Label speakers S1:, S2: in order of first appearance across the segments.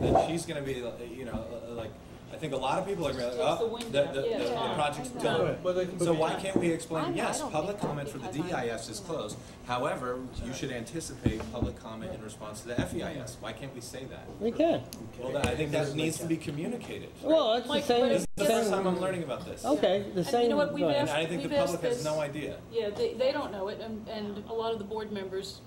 S1: then she's gonna be, like, you know, uh, like, I think a lot of people are gonna, be like,
S2: Just
S1: oh,
S2: close the
S1: the,
S2: window."
S1: the, the-
S2: Yeah.
S1: the project's
S2: Yeah.
S1: done.
S3: But they can-
S1: So why can't we
S4: I'm-
S1: explain,
S4: I
S1: yes,
S4: don't
S1: public
S4: think that
S1: comment for the
S4: because I'm-
S1: DEIS is closed, however, you should anticipate public comment in response to the FEIS, why can't we say that?
S5: We can.
S1: Well, I think that needs to be communicated.
S5: Well, it's the
S2: Mike, but
S5: same,
S1: This is
S2: it's
S1: the first
S5: same,
S1: time I'm learning about this.
S5: okay, the
S2: And you
S5: same.
S2: know what, we've
S5: go ahead.
S1: And I think the
S2: We've asked
S1: public has
S2: this-
S1: no idea.
S2: Yeah, they, they don't know it, and, and a lot of the board members,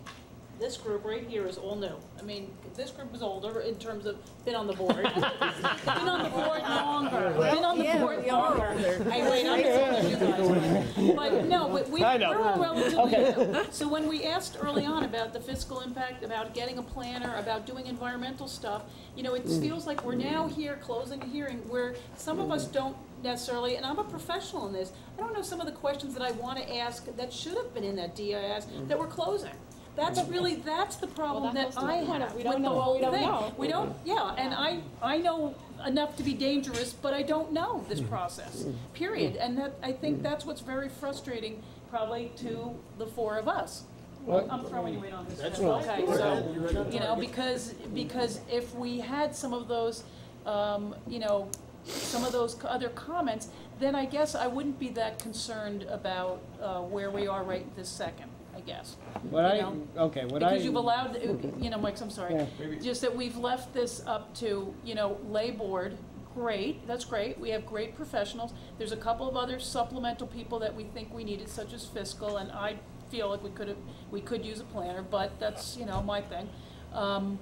S2: this group right here is all new. I mean, this group is older in terms of, been on the board. Been on the board longer, been on the
S4: Yeah,
S2: board
S4: we are
S2: longer. I wait, I'm telling you guys. But no, but we,
S5: I
S2: we're
S5: know.
S2: all relatively new. So when we asked early on about the fiscal impact, about getting a planner, about doing environmental stuff, you know, it
S5: Mm.
S2: feels like we're now here closing a hearing where some of us don't necessarily, and I'm a professional in this, I don't know some of the questions that I want to ask that should have been in that DIS that we're closing. That's
S5: Mm.
S2: really, that's the problem
S4: that
S2: that
S4: goes to
S2: I
S4: the point.
S2: have
S4: We
S2: with
S4: don't
S2: the
S4: know.
S2: whole
S4: We
S2: thing.
S4: don't know.
S2: We don't, yeah, and I, I know enough to be dangerous, but I don't know this process, period. And that, I think that's what's very frustrating probably to the four of us.
S5: Well-
S2: I'm throwing you in on this.
S3: That's
S2: Jen.
S3: fine.
S2: Okay,
S3: Go
S2: so,
S3: ahead. You're at the
S2: you know,
S3: target.
S2: because, because if we had some of those, um, you know, some of those co- other comments, then I guess I wouldn't be that concerned about, uh, where we are right this second, I guess.
S5: What I,
S2: you know,
S5: okay, what I.
S2: Because you've allowed, you know, Mike, I'm sorry,
S5: Yeah.
S1: Maybe-
S2: just that we've left this up to, you know, lay board, great, that's great, we have great professionals. There's a couple of other supplemental people that we think we needed, such as fiscal, and I feel like we could have, we could use a planner, but that's, you know, my thing. Um,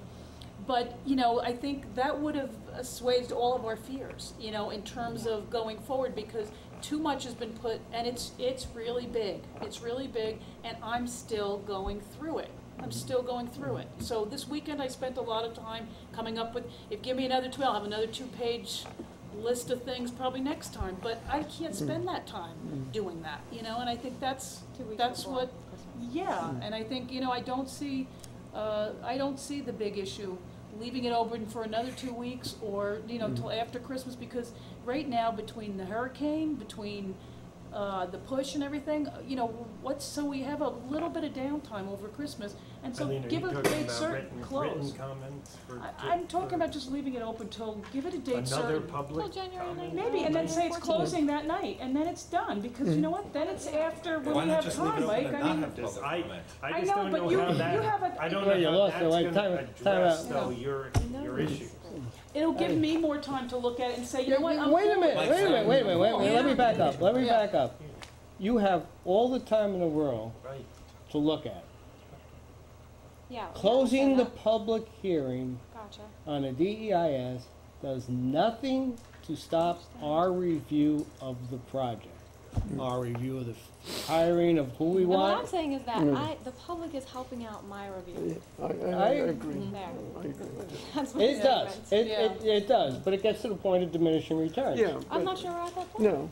S2: but, you know, I think that would have assuaged all of our fears, you know, in terms of going forward, because too much has been put, and it's, it's really big. It's really big, and I'm still going through it. I'm still going through it. So this weekend, I spent a lot of time coming up with, if give me another two, I'll have another two-page list of things probably next time, but I can't spend that time doing that, you know, and I think that's, that's what, yeah,
S6: Hmm.
S2: and I think, you know, I don't see, uh, I don't see the big issue, leaving it open for another two weeks or, you
S6: Hmm.
S2: know, till after Christmas, because right now, between the hurricane, between, uh, the push and everything, uh, you know, what's, so we have a little bit of downtime over Christmas, and so
S6: Eileen, are
S2: give
S6: you
S2: a
S6: talking
S2: date
S6: about
S2: certain
S6: written-
S2: close.
S6: Written comments for.
S2: I, I'm talking about just leaving it open till, give it a date certain.
S6: Another public
S4: January
S6: comment?
S2: Maybe, and then say it's closing that night, and then it's done, because
S6: Hmm.
S2: you know what, then it's after
S1: Why
S2: when we
S1: not
S2: have
S1: just leave it
S2: time,
S1: open
S2: Mike,
S1: and
S2: I
S1: not
S2: mean,
S1: have
S6: Does
S1: public
S6: I,
S1: comment?
S2: I
S6: I just
S2: know,
S6: don't
S2: but
S6: know
S2: you-
S6: how
S2: you have
S6: that,
S2: a-
S6: I don't
S5: Well, you
S6: know how
S5: lost
S6: that's
S5: it, like, time-
S6: gonna
S5: time
S6: address
S5: out.
S6: though your, your issue.
S2: it'll give me more time to look at it and say, you know what, I'm.
S5: Wait a
S2: cool
S5: minute,
S2: with
S5: wait a minute, wait a minute, wait a minute, let me back up, let me
S2: Yeah.
S5: back up. You have all the time in the world
S6: Right.
S5: to look at.
S4: Yeah.
S5: Closing the public hearing
S4: Gotcha.
S5: on a DEIS does nothing to stop our review of the project. Our review of the hiring of who we
S4: And what I'm
S5: want. Mm.
S4: saying is that I, the public is helping out my review
S7: I, I,
S5: I-
S7: I agree.
S4: there.
S7: I agree with that.
S4: That's what
S5: It
S4: the
S5: does,
S4: difference.
S5: it, it, it does, but it gets to the point of diminishing returns.
S7: Yeah.
S4: I'm
S7: but-
S4: not sure we're at that point.
S7: No,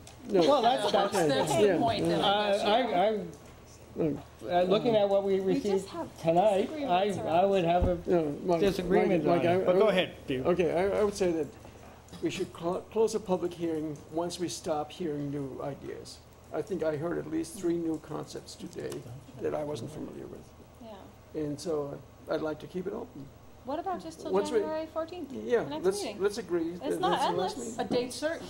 S7: no.
S5: Well, that's, that's,
S2: That's the
S7: Yeah.
S2: whole point, then,
S5: Uh,
S2: I guess, yeah.
S5: I, I, I, looking at what we received
S4: just have
S5: tonight, I,
S4: disagreements
S5: I would have a
S7: no, Mike-
S5: disagreement on
S7: Mike- Mike, I-
S5: it, but
S7: I
S5: go
S7: would-
S5: ahead, Steve.
S7: Okay, I, I would say that we should cl- close the public hearing once we stop hearing new ideas. I think I heard at least three new concepts today that I wasn't familiar with.
S4: Yeah.
S7: And so uh, I'd like to keep it open.
S4: What about just till
S7: What's with-
S4: January fourteenth?
S7: Yeah,
S4: The next
S7: let's,
S4: meeting.
S7: let's agree. that
S4: not
S7: that's the last
S4: endless.
S2: A
S7: meeting.
S2: date certain,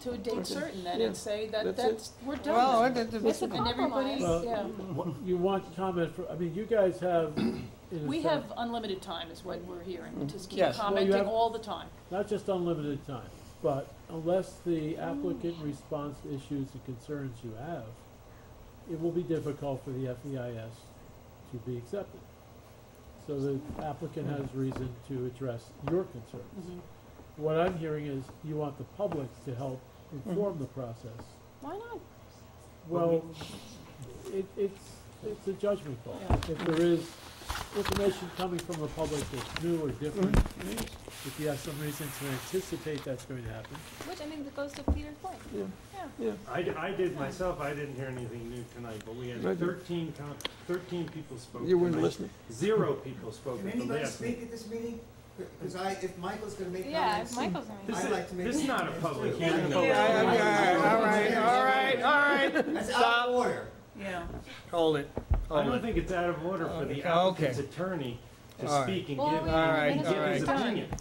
S2: to a date certain then, and
S7: Yeah.
S2: say that,
S7: That's it.
S2: that's, we're
S5: Well,
S2: done.
S5: it- it-
S4: It's a
S2: And everybody,
S4: compromise.
S6: Well,
S2: yeah,
S6: You want comment for, I mean, you guys have, in
S2: we have unlimited time is what we're hearing, just keep
S5: Yes. Well,
S6: you
S2: commenting
S6: have-
S2: all the time.
S6: not just unlimited time, but unless the applicant responds to issues and concerns you have, it will be difficult for the FEIS to be accepted. So the applicant has reason to address your
S2: Mm-hmm.
S6: concerns. What I'm hearing is you want the public to help inform the process.
S4: Why not?
S6: Well, it, it's, it's a judgment call.
S2: Yeah.
S6: If there is information coming from the public that's new or different, if you have some reason to anticipate that's going to happen.
S4: Which I think that goes to Peter's point.
S7: Yeah.
S4: Yeah.
S8: I, d- I did myself, I didn't hear anything new tonight, but we had
S7: Right.
S8: thirteen com- thirteen people spoke.
S7: You weren't
S8: tonight.
S7: listening.
S8: Zero people spoke
S9: Can
S8: at the
S9: anybody
S8: last
S9: speak
S8: meeting.
S9: at this meeting? Because I, if Michael's gonna make
S4: Yeah, if
S9: comments,
S4: Michael's gonna.
S8: This
S9: I'd
S8: is-
S9: like to make.
S8: This is not a
S9: comments,
S8: public
S9: too.
S8: hearing.
S4: you.
S8: though.
S5: Yeah, yeah, all right, all right, all right.
S9: That's out of order.
S2: Yeah.
S5: Hold it,
S8: I
S5: hold
S8: don't
S5: it.
S8: think it's out of order for the
S5: Okay.
S8: applicant's attorney to
S5: All right.
S8: speak and
S4: Well,
S8: give,
S4: we-
S5: All right,
S8: and
S4: all
S8: give his
S4: right.
S8: opinion.